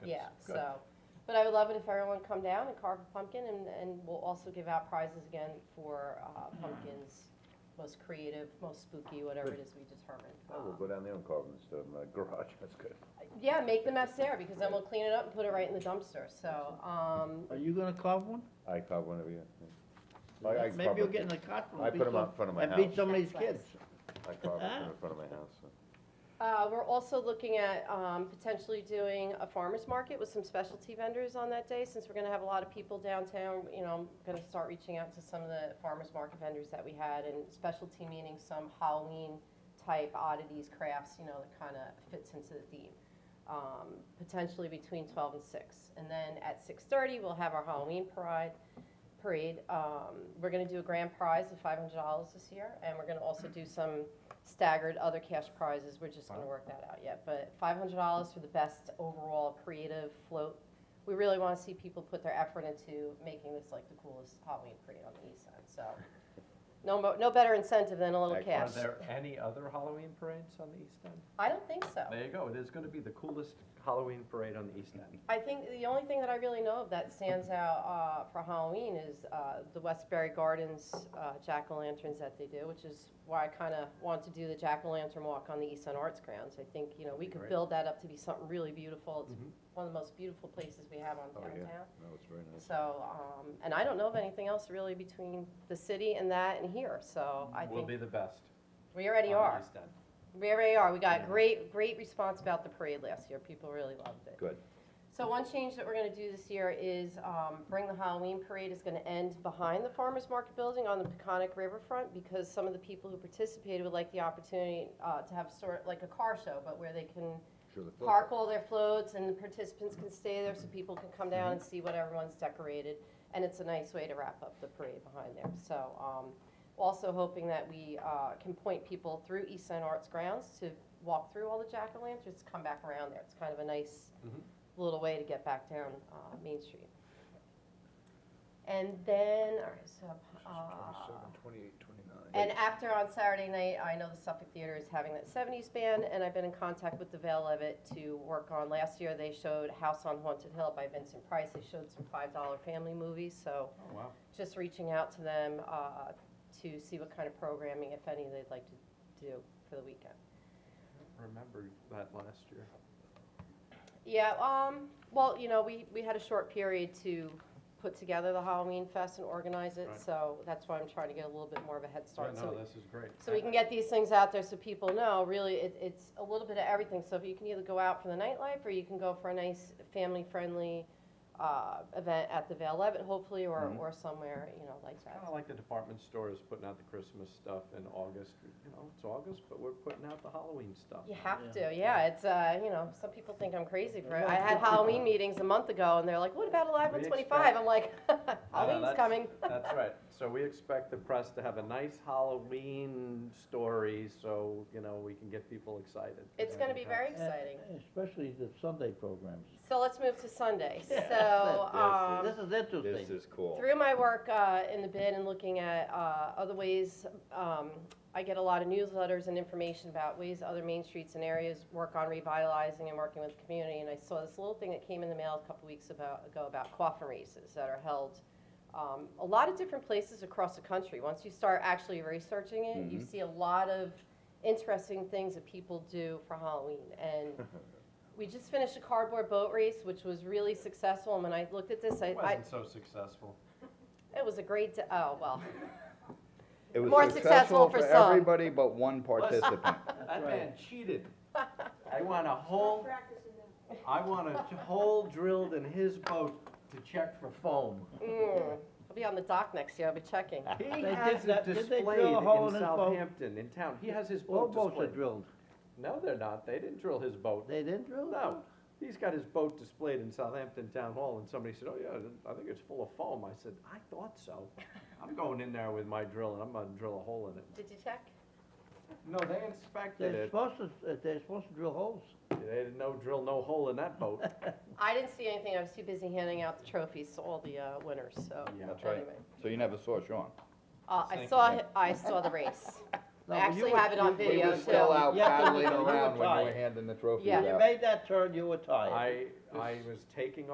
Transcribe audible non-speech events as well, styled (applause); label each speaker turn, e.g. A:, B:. A: Yeah,
B: Good.
A: so, but I would love it if everyone come down and carve a pumpkin, and, and we'll also give out prizes again for uh, pumpkins, most creative, most spooky, whatever it is we determine.
C: Oh, we'll
A: Um,
C: go down there and carve them instead of my (laughs) garage, that's good.
A: Yeah, make the mess there, because then we'll clean it up and put it right in the dumpster, so, um,
B: Are you gonna carve one?
C: I carve one of you. I- I
B: Maybe you'll
C: probably-
B: get in the cart and
C: I
B: beat
C: put 'em
B: some-
C: out in front of my
B: And beat
C: house.
B: some of these
A: That's nice.
B: kids.
C: I carve it in front of my house, so.
A: uh, we're also looking at, um, potentially doing a farmer's market with some specialty vendors on that day, since we're gonna have a lot of people downtown, you know, I'm gonna start reaching out to some of the farmer's market vendors that we had, and specialty meaning some Halloween type oddities, crafts, you know, that kind of fits into the theme. Um, potentially between twelve and six, and then at six thirty, we'll have our Halloween parade. Parade. Um, we're going to do a grand prize of five hundred dollars this year, and we're going to also do some staggered other cash prizes. We're just going to work that out yet, but five hundred dollars for the best overall creative float. We really want to see people put their effort into making this like the coolest Halloween parade on the east side. So, no, mo- no better incentive than a little
C: Excellent.
A: cash.
D: Are there any other Halloween parades on the East End?
A: I don't think so.
D: There you go, it is gonna be the coolest Halloween parade on the East End.
A: I think the only thing that I really know of that stands out uh, for Halloween is uh, the Westbury Gardens uh, jack o' lanterns that they do, which is why I kind of want to do the jack o' lantern walk on the East End Arts grounds. I think you know we could
D: Great.
A: build that up to be something really beautiful. It's
D: Mhm.
A: one of the most beautiful places we have on
C: Oh, yeah.
A: downtown.
C: No, it's very nice.
A: So, um, and I don't know of anything else really between the city and that and here. So I
D: Will
A: think
D: be the best.
A: we already
D: on the
A: are.
D: East End.
A: We already are. We got
D: Yeah.
A: great, great response about the parade last year. People really loved it.
C: Good.
A: So one change that we're gonna do this year is, um, Bring the Halloween Parade is gonna end behind the Farmers Market Building on the Peconic Riverfront because some of the people who participated would like the opportunity, uh, to have sort, like a car show, but where they can
C: Sure, the
A: park all their floats and the participants can stay there so people can come down and see what everyone's decorated. And it's a nice way to wrap up the parade behind there. So, um, also hoping that we, uh, can point people through East End Arts grounds to walk through all the jack-o'-lanterns, come back around there. It's kind of a nice
D: Mhm.
A: little way to get back down, uh, Main Street. And then, all right, so, uh,
C: twenty-eight, twenty-nine.
A: and after on Saturday night, I know the Suffolk Theater is having that seventies band, and I've been in contact with the Vale of It to work on, last year they showed House on Haunted Hill by Vincent Price, they showed some five dollar family movies, so
D: Oh, wow.
A: just reaching out to them, uh, to see what kind of programming, if any, they'd like to do for the weekend.
D: Remember that last year.
A: Yeah, um, well, you know, we, we had a short period to put together the Halloween fest and organize it,
D: Right.
A: so that's why I'm trying to get a little bit more of a head
D: Right,
A: start. So,
D: no, this is great.
A: so we can get these things out there so people know, really, it, it's a little bit of everything. So if you can either go out for the nightlife, or you can go for a nice family-friendly, uh, event at the Vale Levitt, hopefully, or,
C: Mhm.
A: or somewhere, you know, like that.
D: Kinda like the department stores putting out the Christmas stuff in August, you know, it's August, but we're putting out the Halloween stuff.
A: You have to, yeah, it's, uh, you know, some people think I'm crazy for it. I had
D: Yeah.
A: Halloween meetings a month ago, and they're like, what about Alive on
D: We
A: Twenty-five?
D: expect-
A: I'm like, (laughs) Halloween's
D: that's-
A: coming.
D: That's right, so we expect the press to have a nice Halloween story, so, you know, we can get people excited.
A: It's gonna be very
B: And-
A: exciting.
B: Eh, Especially the Sunday programs.
A: So let's move to Sunday.
B: Yeah.
A: So, um,
B: This is interesting.
C: This is cool.
A: Through my work uh, in the bid and looking at uh, other ways, um, I get a lot of newsletters and information about ways other main streets and areas work on revitalizing and working with the community. And I saw this little thing that came in the mail a couple weeks about, ago about coffin races that are held um, a lot of different places across the country. Once you start actually researching it, you see a lot of interesting things that people do for Halloween. And we just finished a cardboard boat race, which was really successful. And when I looked at this, I,
D: It
A: I
D: wasn't so successful.
A: it was a great, d- oh, well,
E: It was
A: More successful
E: successful
A: for
E: for
A: some.
E: everybody but one participant.
D: That
B: right.
D: man cheated. I want a hole, I want a j- hole drilled in his boat to check for foam.
A: mm, I'll be on the dock next year, I'll be checking.
E: Ah.
D: He
B: did
D: has it
B: that- did they
D: displayed
B: drill a hole
D: in
B: in his boat?
D: Southampton, in town, he has his
B: All
D: boat
B: boats are
D: displayed.
B: drilled.
D: No, they're not, they didn't drill his boat.
B: They didn't drill it?
D: No, he's got his boat displayed in Southampton Town Hall, and somebody said, oh yeah, I think it's full of foam. I said, I thought so. I'm going in there with my drill and I'm gonna drill a hole in it.
A: Did you check?
D: No, they inspected
B: They're
D: it,
B: supposed to, uh, they're supposed to drill holes.
D: they didn't no drill, no hole in that boat.
A: I didn't see anything, I was too busy handing out the trophies to all the uh, winners, so.
D: Yeah.
E: That's right.
A: anyway.
E: So you never saw Sean.
A: Uh, I
D: Thank
A: saw,
E: you.
A: hi- I saw the race.
B: No,
A: I
B: but you
A: actually
B: were-
A: have it on
B: you-
C: We
A: Video
C: were still
A: too.
C: out
B: Yeah, but
C: paddling
B: you were
C: around when you were
B: tired.
C: handing the trophies
A: Yeah.
C: out.
B: When you made that turn, you were tired.
D: I, I was taking